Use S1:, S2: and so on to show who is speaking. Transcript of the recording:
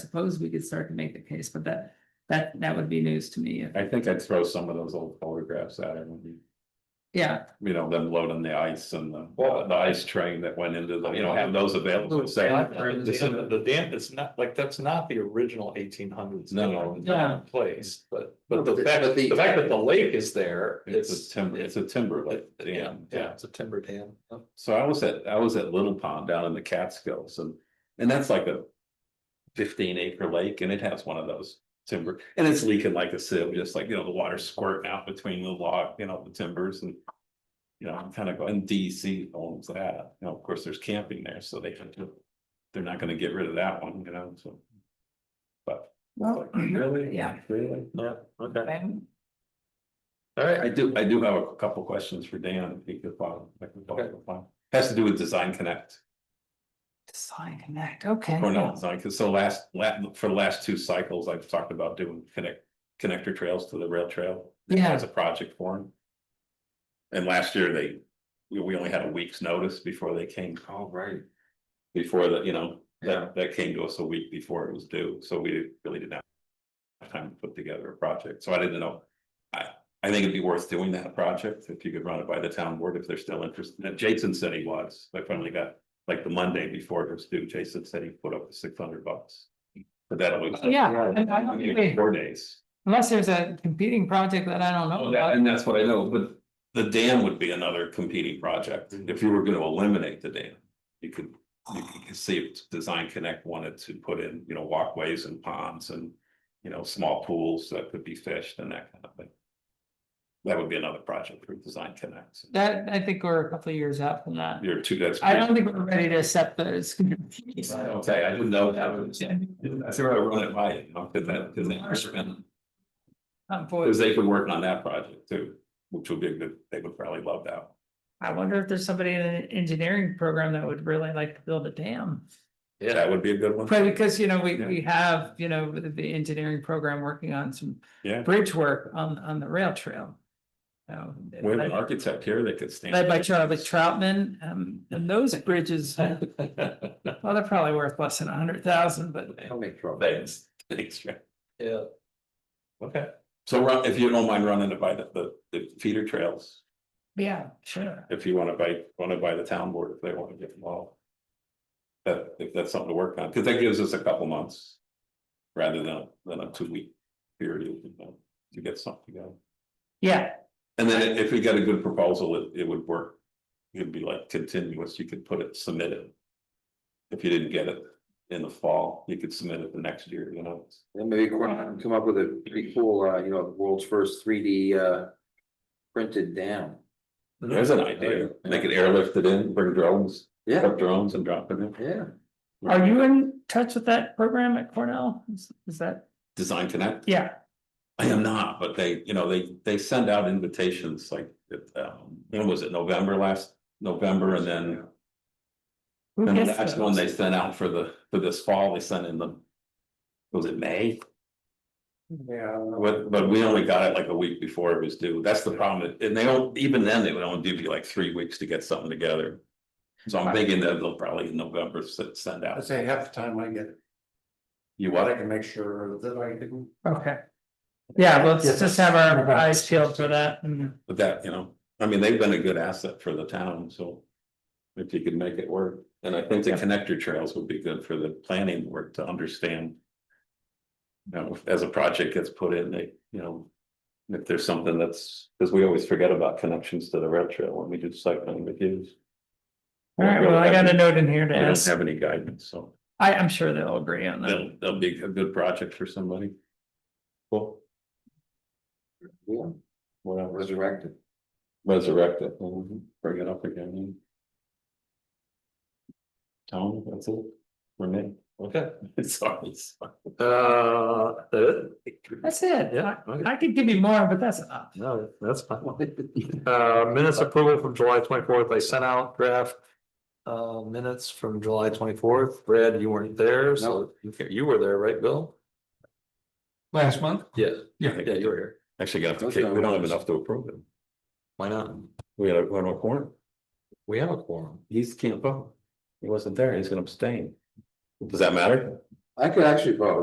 S1: suppose we could start to make the case, but that, that, that would be news to me. if-
S2: I think I'd throw some of those old photographs at him,
S1: Yeah,
S2: you know, them loading the ice and the, uh,
S3: Well-
S2: the ice train that went into the, you know, have those available. Say, this is-
S3: The dam, it's not, like, that's not the original eighteen hundreds.
S2: No.
S1: Yeah.
S3: Place, but,
S4: No,
S3: but the
S4: but
S3: fact,
S4: the-
S3: the fact that the lake is there,
S2: It's a
S3: it's.
S2: timber, it's a timber like
S3: Yeah,
S2: dam,
S3: yeah, it's a timber dam.
S2: So I was at, I was at Little Pond down in the Catskills and, and that's like a. Fifteen acre lake and it has one of those timber and it's leaking like a sieve, just like, you know, the water squirting out between the log, you know, the timbers and. You know, I'm kind of going, DC owns that, you know, of course, there's camping there, so they have to, they're not gonna get rid of that one, you know, so. But.
S1: well,
S2: Really?
S1: Oh, yeah.
S2: Really?
S3: Yeah, okay,
S1: I'm-
S3: all right.
S2: I do, I do have a couple questions for Dan, if he could follow, if I can follow. Has to do with Design Connect.
S1: Design Connect, okay.
S2: Or no, it's not, cause so last, la- for the last two cycles, I've talked about doing connect, connector trails to the rail trail.
S1: Yeah.
S2: As a project for 'em. And last year they, we, we only had a week's notice before they came,
S3: All right.
S2: before the, you know,
S3: Yeah.
S2: that, that came to us a week before it was due, so we really did not. Have time to put together a project, so I didn't know. I, I think it'd be worth doing that project, if you could run it by the town board, if they're still interested, And Jason said he was, I finally got. Like the Monday before it was due, Jason said he put up the six hundred bucks. But that always.
S1: Yeah, and I don't think we-
S2: Four days.
S1: unless there's a competing project that I don't know
S2: Oh,
S1: about.
S2: that, and that's what I know, but the dam would be another competing project, if you were gonna eliminate the dam. You could, you could see if Design Connect wanted to put in, you know, walkways and ponds and, you know, small pools that could be fished and that kind of thing. That would be another project for Design Connect,
S1: That, I think we're a couple of years out from that.
S2: you're two, that's.
S1: I don't think we're ready to accept those.
S2: Okay, I didn't know that was, I figured I'd run it by, you know, cause that, cause that.
S1: Um, boy,
S2: Cause they've been working on that project too, which would be a good, they would probably love that.
S1: I wonder if there's somebody in an engineering program that would really like to build a dam.
S2: That would be a good one.
S1: But because, you know, we,
S2: Yeah.
S1: we have, you know, the, the engineering program working on some
S2: Yeah.
S1: bridge work on, on the rail trail. So,
S2: We have an
S1: led
S2: architect here that could stand.
S1: led by Charlie Troutman, um, and those bridges, well, they're probably worth less than a hundred thousand, but
S2: Thanks, thanks, Jeff.
S3: Yeah.
S2: Okay, so run, if you don't mind running it by the, the, the feeder trails,
S1: yeah, sure.
S2: if you wanna buy, wanna buy the town board, if they wanna get involved. That, if that's something to work on, cause that gives us a couple months. Rather than, than a two week period, you know, to get something going.
S1: Yeah,
S2: And then if we got a good proposal, it, it would work. It'd be like continuous, you could put it, submit it. If you didn't get it in the fall, you could submit it the next year, you know.
S4: And maybe come come up with a pretty cool, uh, you know, the world's first three D, uh, printed dam.
S2: There's an idea, they could airlift it in, bring drones, pick
S4: Yeah,
S2: up drones and drop it in.
S4: yeah.
S1: are you in touch with that program at Cornell? Is is that,
S2: Design Connect,
S1: yeah,
S2: I am not, but they, you know, they, they send out invitations like, um, when was it, November last, November and then.
S1: who
S2: And
S1: gets
S2: that's one
S1: those?
S2: they sent out for the, for this fall, they sent in the. Was it May?
S4: Yeah.
S2: But, but we only got it like a week before it was due. That's the problem. And they don't, even then, they would only give you like three weeks to get something together. So I'm thinking that they'll probably in November s- send
S5: I'd
S2: out.
S5: say half the time I get it,
S2: You
S5: but I
S2: what?
S5: can make sure that I didn't.
S1: Okay. Yeah, let's
S5: Yes.
S1: just have our eyes peeled for that and
S2: But that, you know, I mean, they've been a good asset for the town, so. If you could make it work, and I think the connector trails would be good for the planning work to understand. You know, if- as a project gets put in, they, you know. If there's something that's, because we always forget about connections to the rail trail when we do site plan reviews.
S1: All right, well, I got a note in here to
S2: I don't
S1: ask.
S2: have any guidance, so
S1: I, I'm sure they'll agree on that.
S2: that'll, that'll be a good project for somebody. Cool, whatever,
S4: Resurrected.
S2: resurrect it, mhm, bring it up again. Tom, that's it, for me,
S3: Okay,
S2: sorry, sorry.
S3: uh, that it?
S1: That's it.
S3: Yeah,
S1: I-
S3: okay.
S1: I could give you more, but that's uh, enough.
S3: no, that's fine. Uh, minutes approval from July twenty-fourth, I sent out draft. Uh, minutes from July twenty-fourth, Brad, you weren't there, so you ca- you were there, right, Bill?
S5: Last month?
S3: Yeah,
S2: Yeah,
S3: yeah, you were here,
S2: actually, gonna have to, kick- we don't have enough to approve them,
S3: why not?
S2: we gotta run a corner,
S3: We have a quorum.
S2: he's can't vote. He wasn't there, he's gonna abstain. Does that matter?
S4: I could actually oh, vote.